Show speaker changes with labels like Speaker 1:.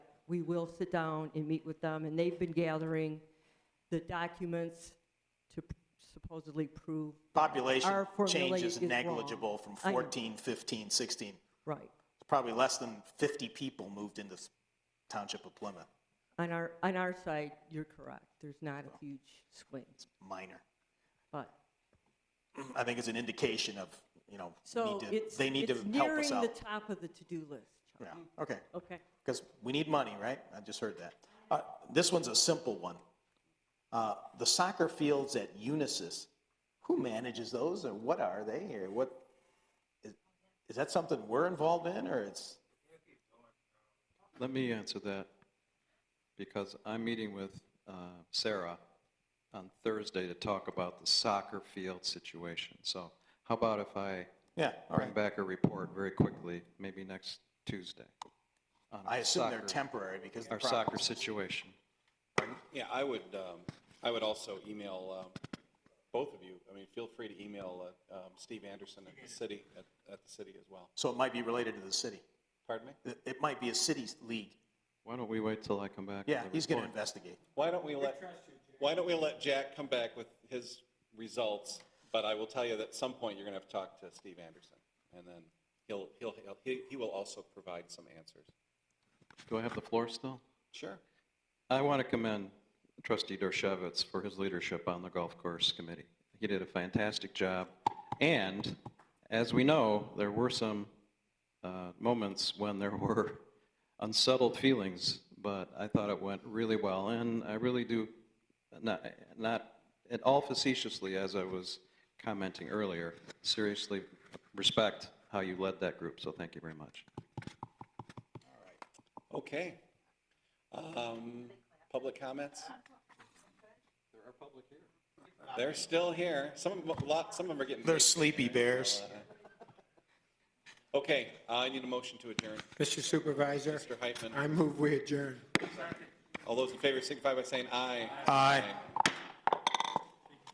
Speaker 1: we will sit down and meet with them, and they've been gathering the documents to supposedly prove.
Speaker 2: Population
Speaker 1: Our formula
Speaker 2: change is
Speaker 1: is wrong.
Speaker 2: negligible from
Speaker 1: I know.
Speaker 2: 14, 15, 16.
Speaker 1: Right.
Speaker 2: Probably less than 50 people moved into s- Township of Plymouth,
Speaker 1: On our, on our side, you're correct. There's not a huge swing,
Speaker 2: minor.
Speaker 1: but,
Speaker 2: I think it's an indication of, you know,
Speaker 1: so
Speaker 2: need to-
Speaker 1: it's,
Speaker 2: they need to
Speaker 1: it's
Speaker 2: help
Speaker 1: nearing
Speaker 2: us
Speaker 1: the
Speaker 2: out.
Speaker 1: top of the to-do list, Chuck.
Speaker 2: Yeah, okay.
Speaker 1: Okay.
Speaker 2: Because we need money, right? I just heard that. Uh, This one's a simple one. Uh, The soccer fields at Unisys, who manages those or what are they or what? is- Is that something we're involved in or it's,
Speaker 3: Let me answer that, because I'm meeting with uh, Sarah on Thursday to talk about the soccer field situation. So how about if I
Speaker 2: yeah, all
Speaker 3: bring
Speaker 2: right.
Speaker 3: back a report very quickly, maybe next Tuesday? on
Speaker 2: I assume they're
Speaker 3: soccer-
Speaker 2: temporary because the
Speaker 3: Our soccer
Speaker 2: property.
Speaker 3: situation.
Speaker 4: Yeah, I would, um, I would also email, um, both of you, I mean, feel free to email, uh, um, Steve Anderson at the city, at, at the city as well.
Speaker 2: So it might be related to the city.
Speaker 4: Pardon me?
Speaker 2: It- It might be a city's league.
Speaker 3: Why don't we wait till I come back? with
Speaker 2: Yeah,
Speaker 3: the
Speaker 2: he's going to
Speaker 3: report?
Speaker 2: investigate.
Speaker 4: Why don't we let, why don't we let Jack come back with his results? But I will tell you that at some point, you're gonna have to talk to Steve Anderson, and then he'll, he'll, he'll- he, he will also provide some answers.
Speaker 3: Do I have the floor still?
Speaker 4: Sure.
Speaker 3: I want to commend trustee Dershowitz for his leadership on the golf course committee. He did a fantastic job. And as we know, there were some uh, moments when there were unsettled feelings, but I thought it went really well. And I really do, not, not at all facetiously, as I was commenting earlier, seriously respect how you led that group, so thank you very much.
Speaker 4: Okay. Um, public comments? There are public here. They're still here. Some, of 'em- a lot, some of them are getting.
Speaker 2: They're sleepy bears.
Speaker 4: Okay, I need a motion to adjourn.
Speaker 5: Mr. Supervisor,
Speaker 4: Mr. Heitman,
Speaker 5: I move we adjourn.
Speaker 4: all those in favor signify by saying aye.
Speaker 2: Aye.